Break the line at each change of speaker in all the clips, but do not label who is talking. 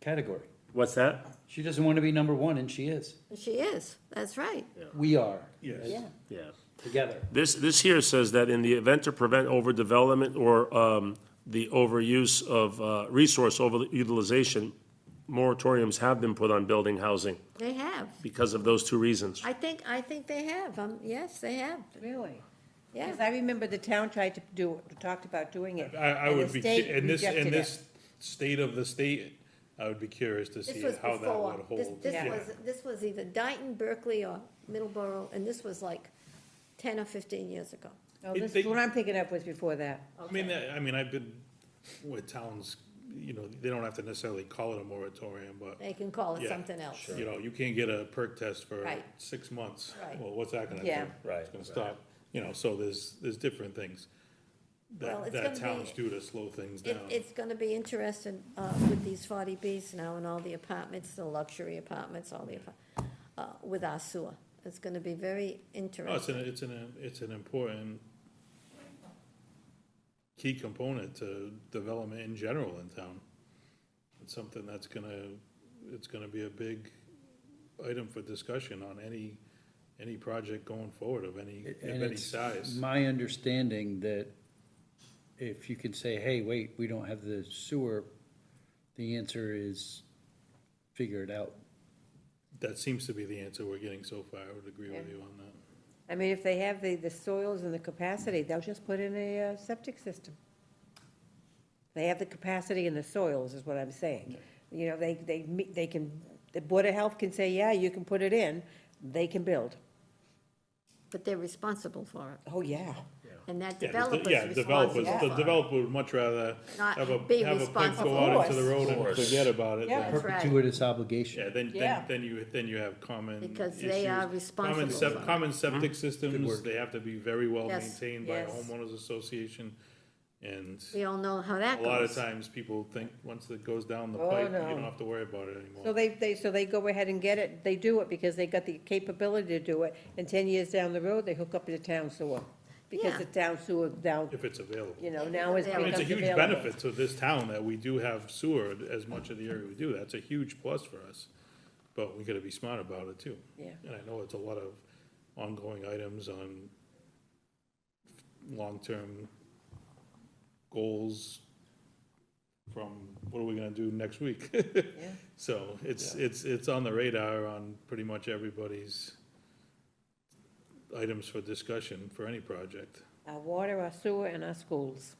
category.
What's that?
She doesn't want to be number one, and she is.
She is, that's right,
We are.
Yes.
yeah.
Yeah.
Together.
This, this here says that in the event to prevent overdevelopment or um, the overuse of uh, resource overutilization, moratoriums have been put on building housing
They have.
because of those two reasons.
I think, I think they have, um, yes, they have,
Really?
yeah.
Because I remember the town tried to do, talked about doing it.
I, I
and the
would be,
state
cu- in this, in
rejected it.
this state of the state, I would be curious to see
This was
how that
before,
would
this,
hold.
this
Yeah.
was, this was either Dayton, Berkeley, or Middleborough, and this was like ten or fifteen years ago.
No,
It-
this,
they-
what I'm thinking of was before that.
I mean, I I mean, I've been with towns, you know, they don't have to necessarily call it a moratorium, but,
They can call it
Yeah,
something else.
you know, you can't get a perk test for
Right.
six months.
Right.
Well, what's that gonna do?
Yeah.
It's gonna stop, you know, so there's, there's different things
Well,
that,
it's
that
gonna be-
towns do to slow things
It,
down.
it's gonna be interesting, uh, with these forty Bs now and all the apartments, the luxury apartments, all the, apar- uh, with our sewer. It's gonna be very
No, Oh, it's
interesting.
an, it's an, it's an important key component to development in general in town. It's something that's gonna, it's gonna be a big item for discussion on any, any project going forward of any, of
And
any
it's
size.
my understanding that if you can say, hey, wait, we don't have the sewer, the answer is figure it out.
That seems to be the answer we're getting so far, I would agree with you on that.
I mean, if they have the, the soils and the capacity, they'll just put in a uh, septic system. They have the capacity and the soils, is what I'm saying. You know, they, they, meet- they can, the Board of Health can say, yeah, you can put it in, they can build.
But they're responsible for it,
Oh, yeah.
and that
Yeah, 'cause the-
developer's
Yeah,
responsible
developers,
for
the
it.
developer would much rather
Not
have a,
be
have a pipe
responsible.
go out into the
Of
road and
course.
forget about it.
Yeah.
than-
That's right.
Gratuitous obligation.
Yeah, then, then,
Yeah.
then you, then you have common.
Because they
issues.
are
Common
responsible
sep-
for it.
Common
Mhm.
septic systems, they have to be very well
Yes.
maintained by a
Yes.
homeowners association. And
We all know how that
a
goes.
lot of times people think, once it goes down the
Oh,
pipe, you
no.
don't have to worry about it
So
anymore.
they, they, so they go ahead and get it, they do it because they got the capability to do it, and ten years down the road, they hook up to the town sewer. Because
Yeah.
the town sewer down,
If it's available.
you know,
If it's
now is
available.
It's
becomes
a huge
available.
benefit to this town that we do have sewer as much of the area we do. That's a huge plus for us. But we gotta be smart about it too.
Yeah.
And I know it's a lot of ongoing items on long-term goals from what are we gonna do next week? So it's, it's, it's on the radar on pretty much everybody's items for discussion for any project.
Our water, our sewer, and our schools.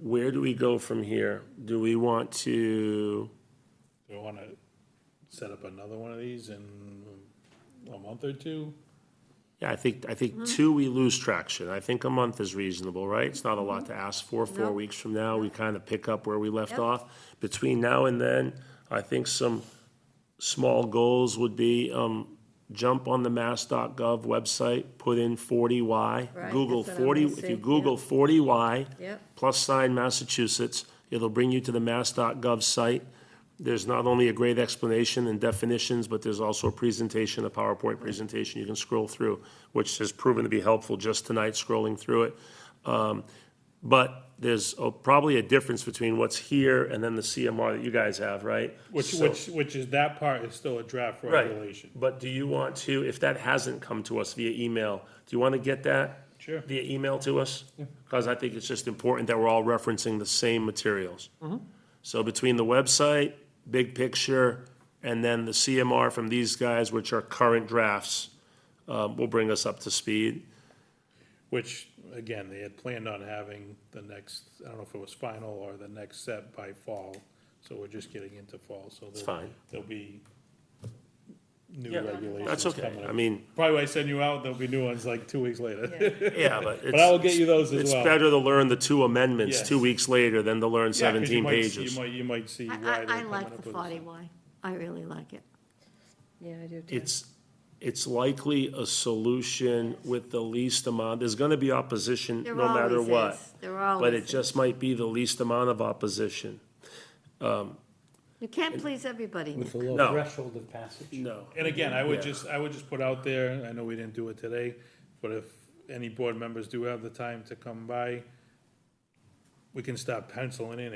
Where do we go from here? Do we want to,
Do you wanna set up another one of these in a month or two?
yeah, I think, I
Mm-hmm.
think two, we lose traction. I think a month is reasonable, right? It's not a lot to ask for. Four
No.
weeks from now, we kind of pick up where we left
Mm-hmm. Yep.
off. Between now and then, I think some small goals would be, um, jump on the mass.gov website, put in forty Y.
Right,
Google
that's what I
forty,
wanna
if you
see,
Google forty Y.
Yep.
plus sign Massachusetts. It'll bring you to the mass.gov site. There's not only a great explanation and definitions, but there's also a presentation, a PowerPoint presentation you can scroll through, which has proven to be helpful just tonight scrolling through it. Um, But there's a- probably a difference between what's here and then the CMR that you guys have, right?
Which,
So-
which, which is, that part is still a draft
Right.
regulation.
But do you want to, if that hasn't come to us via email, do you want to get that?
Sure.
Via email to us? Because I think it's just important that we're all referencing the same materials.
Mm-hmm.
So between the website, big picture, and then the CMR from these guys, which are current drafts, uh, will bring us up to speed.
Which, again, they had planned on having the next, I don't know if it was final or the next set by fall, so we're just getting into fall, so. It's
fine.
There'll be new
Yeah,
regulations.
That's okay.
coming up.
I mean,
Probably when I send you out, there'll be new ones like two weeks later.
yeah, but it's.
But I will get you those as
It's
well.
better to learn the two amendments
Yes.
two weeks later than to learn
Yeah, 'cause you
seventeen
might-
pages.
You might, you might see
I,
why they're
I, I
coming
like
up
the
with this.
forty Y, I really like it.
Yeah, I do too.
it's, it's likely a solution with the least amount, there's gonna be opposition
There
no matter
always
what.
is. There
But
always
it just might be the least amount of opposition.
You can't please everybody.
With a
No.
low threshold of passage.
No.
And again, I would
Yeah.
just, I would just put out there, I know we didn't do it today, but if any board members do have the time to come by, we can start penciling in